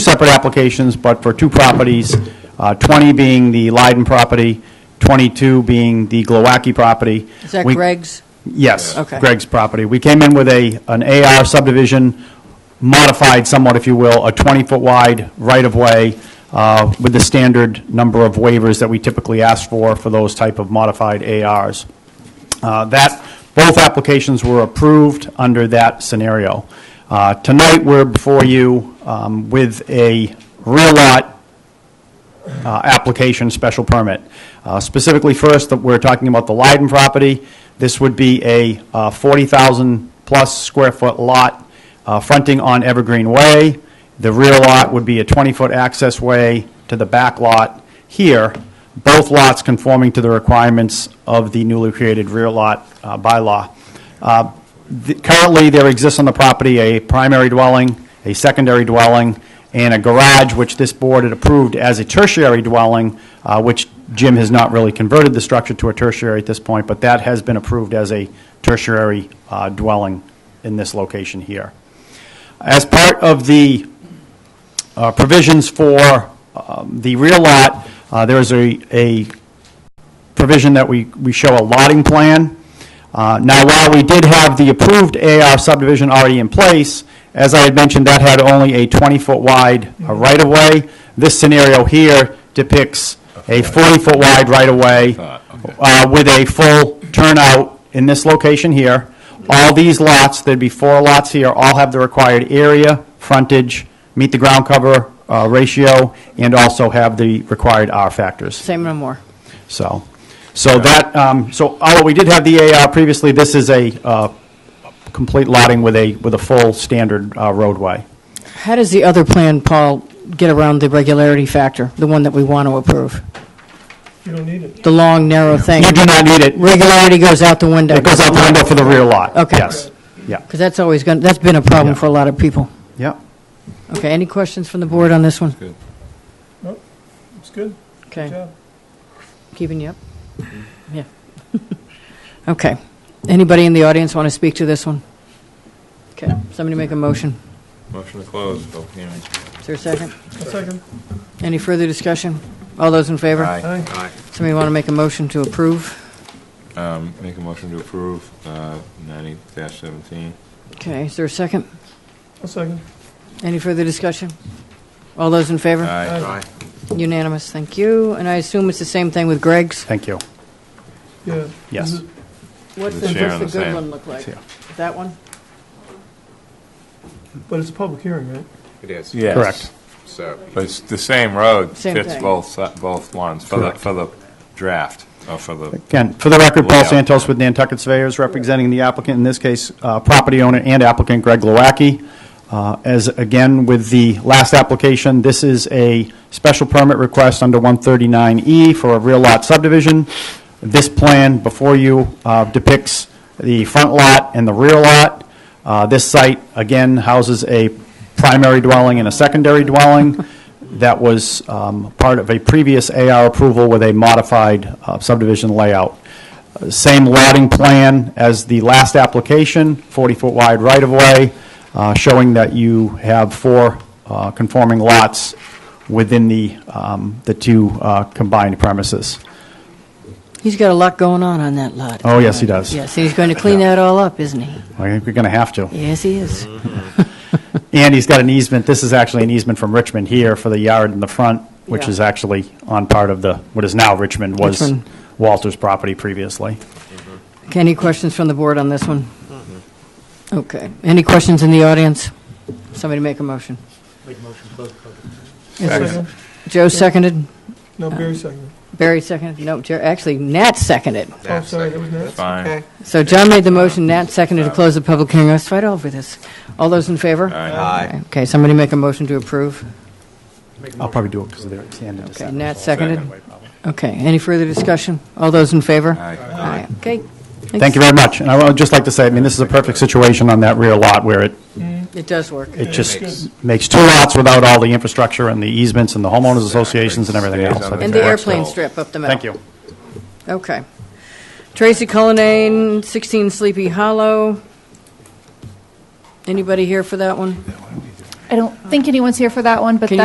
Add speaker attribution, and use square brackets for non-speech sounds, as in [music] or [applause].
Speaker 1: separate applications, but for two properties, uh, 20 being the Leiden property, 22 being the Glowacki property.
Speaker 2: Is that
Speaker 1: We-
Speaker 2: Greg's?
Speaker 1: Yes,
Speaker 2: Okay.
Speaker 1: Greg's property. We came in with a, an AR subdivision, modified somewhat, if you will, a 20-foot wide right-of-way uh, with the standard number of waivers that we typically ask for, for those type of modified ARs. Uh, That, both applications were approved under that scenario. Uh, Tonight, we're before you um, with a rear lot uh, application special permit. Uh, Specifically, first, that we're talking about the Leiden property. This would be a 40,000-plus square foot lot uh, fronting on Evergreen Way. The rear lot would be a 20-foot access way to the back lot here, both lots conforming to the requirements of the newly created rear lot uh, bylaw. Uh, the- Currently, there exists on the property a primary dwelling, a secondary dwelling, and a garage, which this board had approved as a tertiary dwelling, uh, which Jim has not really converted the structure to a tertiary at this point, but that has been approved as a tertiary uh, dwelling in this location here. As part of the uh, provisions for um, the rear lot, uh, there is a a provision that we, we show a lotting plan. Uh, Now, while we did have the approved AR subdivision already in place, as I had mentioned, that had only a 20-foot wide uh, right-of-way. This scenario here depicts a 40-foot wide right-of-way uh, with a full turnout in this location here. All these lots, there'd be four lots here, all have the required area, frontage, meet the ground cover uh, ratio, and also have the required R factors.
Speaker 2: Same no more.
Speaker 1: So, so that, um, so although we did have the AR previously, this is a uh, complete lotting with a, with a full standard uh, roadway.
Speaker 2: How does the other plan, Paul, get around the regularity factor, the one that we want to approve?
Speaker 3: You don't need it.
Speaker 2: The long, narrow thing?
Speaker 1: You do not need it.
Speaker 2: Regularity goes out the window.
Speaker 1: It goes out the window for the rear lot.
Speaker 2: Okay.
Speaker 1: Yes. Yeah.
Speaker 2: Because that's always going, that's been a problem
Speaker 1: Yeah.
Speaker 2: for a lot of people.
Speaker 1: Yeah.
Speaker 2: Okay, any questions from the board on this one?
Speaker 3: No, it's good. Good
Speaker 2: Okay,
Speaker 3: job.
Speaker 2: keeping you up? Yeah. [laughs] Okay. Anybody in the audience want to speak to this one? Okay, somebody make a motion.
Speaker 4: Motion to close public hearing.
Speaker 2: Is there a second?
Speaker 3: A second.
Speaker 2: Any further discussion? All those in favor?
Speaker 3: Aye.
Speaker 2: Somebody want to make a motion to approve?
Speaker 4: Um, Make a motion to approve uh, 90-17.
Speaker 2: Okay, is there a second?
Speaker 3: A second.
Speaker 2: Any further discussion? All those in favor?
Speaker 4: Aye.
Speaker 2: Unanimous, thank you. And I assume it's the same thing with Greg's?
Speaker 1: Thank you.
Speaker 3: Yeah.
Speaker 1: Yes.
Speaker 3: Is it-
Speaker 2: What's
Speaker 4: The
Speaker 2: the,
Speaker 4: chair
Speaker 2: what's
Speaker 4: on
Speaker 2: the
Speaker 4: the
Speaker 2: good
Speaker 4: same.
Speaker 2: one look like?
Speaker 1: Yeah.
Speaker 2: That one?
Speaker 3: But it's a public hearing, right?
Speaker 4: It is.
Speaker 1: Yes. Correct.
Speaker 4: So. But it's the same road,
Speaker 2: Same
Speaker 4: fits
Speaker 2: thing.
Speaker 4: both, si- both ones, for the,
Speaker 1: Correct.
Speaker 4: for the draft, or for the,
Speaker 1: Again, for the record, Paul
Speaker 4: Layout.
Speaker 1: Santos with Nantucket Surveyors, representing the applicant, in this case, uh, property owner and applicant Greg Glowacki. Uh, As, again, with the last application, this is a special permit request under 139E for a rear lot subdivision. This plan before you uh, depicts the front lot and the rear lot. Uh, This site, again, houses a primary dwelling and a secondary dwelling that was um, part of a previous AR approval with a modified uh, subdivision layout. Uh, Same lotting plan as the last application, 40-foot wide right-of-way, uh, showing that you have four uh, conforming lots within the, um, the two uh, combined premises.
Speaker 2: He's got a lot going on on that lot.
Speaker 1: Oh, yes, he does.
Speaker 2: Yes, he's going to clean
Speaker 1: Yeah.
Speaker 2: that all up, isn't he?
Speaker 1: I think we're going to have to.
Speaker 2: Yes, he is.
Speaker 1: And he's got an easement, this is actually an easement from Richmond here for the yard in the front, which
Speaker 2: Yeah.
Speaker 1: is actually on part of the, what is now Richmond, was
Speaker 2: Richmond.
Speaker 1: Walter's property previously.
Speaker 2: Okay, Any questions from the board on this one? Okay, any questions in the audience? Somebody make a motion. Is there-
Speaker 3: Second.
Speaker 2: Joe seconded,
Speaker 3: No, Barry second.
Speaker 2: Barry seconded, no, Jer- actually, Nat seconded.
Speaker 3: Oh, sorry, that was Nat.
Speaker 4: fine.
Speaker 2: So John made the motion, Nat seconded to close the public hearing. Let's fight over this. All those in favor?
Speaker 4: Aye.
Speaker 2: Okay, somebody make a motion to approve.
Speaker 1: I'll probably do it because they're extended.
Speaker 2: Okay, Nat seconded. Okay, any further discussion? All those in favor? Aye. Okay.
Speaker 1: Thank you very much. And I would just like to say, I mean, this is a perfect situation on that rear lot where it,
Speaker 2: It does work.
Speaker 1: it just makes two lots without all the infrastructure and the easements and the homeowners associations and everything
Speaker 4: Stays
Speaker 1: else.
Speaker 4: on
Speaker 1: I
Speaker 4: the
Speaker 1: think-
Speaker 2: And the
Speaker 4: Okay.
Speaker 2: airplane strip up the middle.
Speaker 1: Thank you.
Speaker 2: Okay. Tracy Cullinane, 16 Sleepy Hollow. Anybody here for that one?
Speaker 5: I don't think anyone's here for that one, but
Speaker 2: Can you
Speaker 5: that